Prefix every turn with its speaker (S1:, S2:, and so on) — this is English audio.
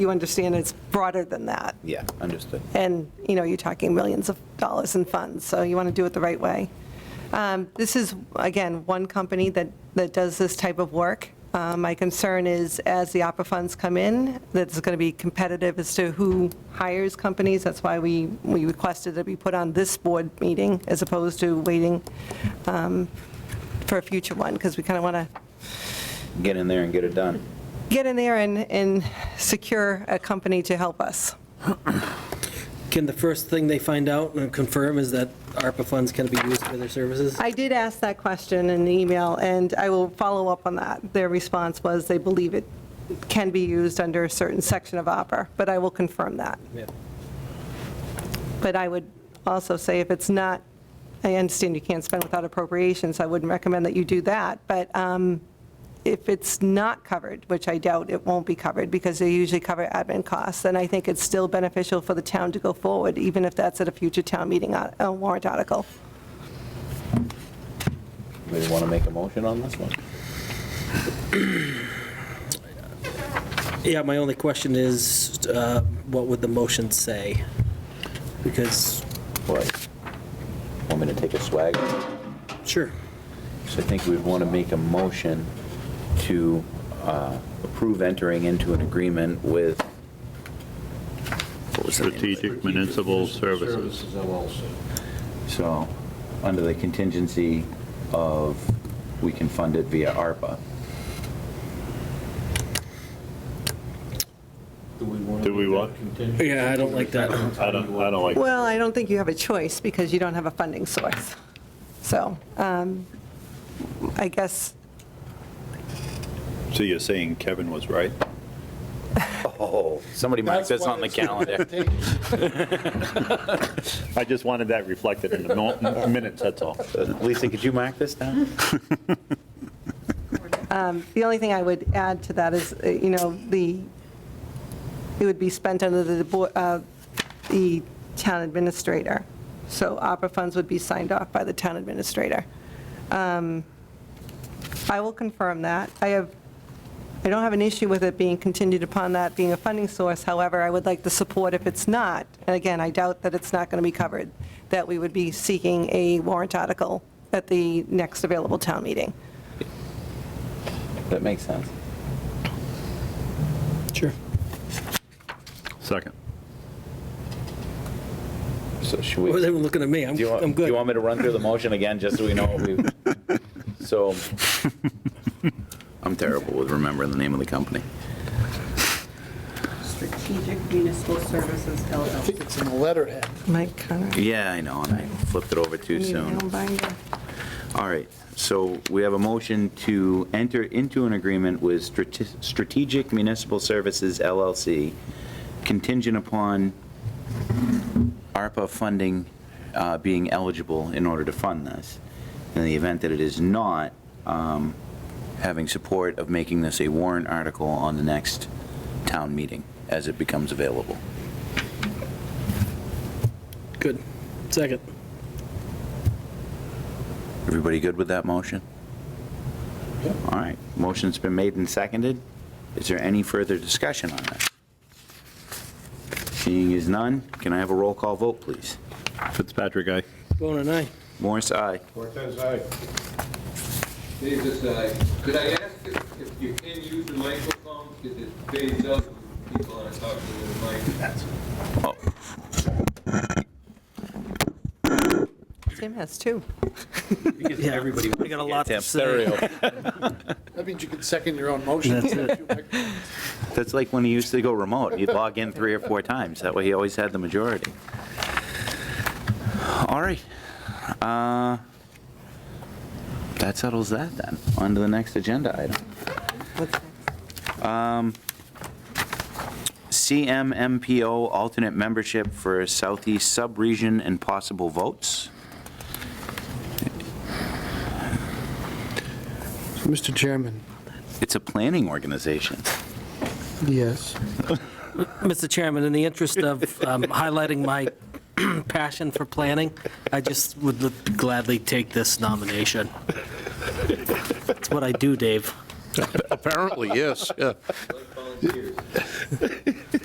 S1: you understand it's broader than that.
S2: Yeah, understood.
S1: And, you know, you're talking millions of dollars in funds, so you want to do it the right way. Um, This is, again, one company that, that does this type of work. Uh, My concern is, as the opera funds come in, that it's going to be competitive as to who hires companies. That's why we, we requested that be put on this board meeting as opposed to waiting um, for a future one, because we kind of want to
S2: Get in there and get it done.
S1: get in there and, and secure a company to help us.
S3: Can the first thing they find out and confirm is that ARPA funds can be used for their services?
S1: I did ask that question in the email, and I will follow up on that. Their response was they believe it can be used under a certain section of Opera, but I will confirm that.
S3: Yeah.
S1: But I would also say if it's not, I understand you can't spend without appropriations, I wouldn't recommend that you do that, but um, if it's not covered, which I doubt it won't be covered, because they usually cover admin costs, then I think it's still beneficial for the town to go forward, even if that's at a future town meeting uh, uh, warrant article.
S2: We want to make a motion on this one?
S3: Yeah, my only question is, uh, what would the motion say? Because,
S2: Right. Want me to take a swag?
S3: sure,
S2: So I think we'd want to make a motion to uh, approve entering into an agreement with, what was the name of it?
S4: Strategic Municipal Services.
S5: LLC.
S2: So, under the contingency of, we can fund it via ARPA.
S5: Do we want to?
S4: Do we what?
S3: Yeah, I don't like that.
S4: I don't, I don't like,
S1: Well, I don't think you have a choice because you don't have a funding source. So um, I guess,
S4: so you're saying Kevin was right?
S2: Oh, somebody mark this on the calendar.
S4: I just wanted that reflected in the mo- minutes, that's all.
S2: Lisa, could you mark this down?
S1: Um, the only thing I would add to that is, uh, you know, the, it would be spent under the, bo- uh, the town administrator. So opera funds would be signed off by the town administrator. Um, I will confirm that. I have, I don't have an issue with it being contingent upon that being a funding source. However, I would like the support if it's not, and again, I doubt that it's not going to be covered, that we would be seeking a warrant article at the next available town meeting.
S2: That makes sense.
S3: Sure.
S4: Second.
S2: So should
S3: Why
S2: we?
S3: was everyone looking at me? I'm
S2: Do you want,
S3: I'm
S2: do
S3: good.
S2: you want me to run through the motion again, just so we know what we, so. I'm terrible with remembering the name of the company.
S6: Strategic Municipal Services
S7: I
S6: LLC.
S7: think it's in the letterhead.
S1: Mike Conrad.
S2: Yeah, I know, and I flipped it over too
S1: Need my
S2: soon.
S1: own binder.
S2: All right, so we have a motion to enter into an agreement with Strate- Strategic Municipal Services LLC contingent upon ARPA funding uh, being eligible in order to fund this. In the event that it is not, um, having support of making this a warrant article on the next town meeting as it becomes available.
S3: Good. Second.
S2: Everybody good with that motion? All right, motion's been made and seconded. Is there any further discussion on that? Seeing is none, can I have a roll call vote, please?
S4: Fitzpatrick, aye.
S3: Bone and I.
S2: Morris, aye.
S5: Cortez, aye.
S8: Davis, uh, could I ask if if you can use the microphone, because it fades up, when people aren't talking to the mic.
S2: Oh,
S1: Tim has two.
S3: Yeah, everybody. I got a lot to say.
S2: stereo.
S7: That means you can second your own motion.
S3: That's it.
S2: That's like when he used to go remote, he'd log in three or four times, that way he always had the majority. All right. uh, That settles that then, on to the next agenda item.
S1: What's next?
S2: CMMPO alternate membership for Southeast Subregion and possible votes.
S7: Mr. Chairman.
S2: It's a planning organization.
S7: Yes.
S3: Mr. Chairman, in the interest of um, highlighting my passion for planning, I just would gladly take this nomination. That's what I do, Dave.
S7: Apparently, yes, yeah.
S8: Like volunteering. Cheers.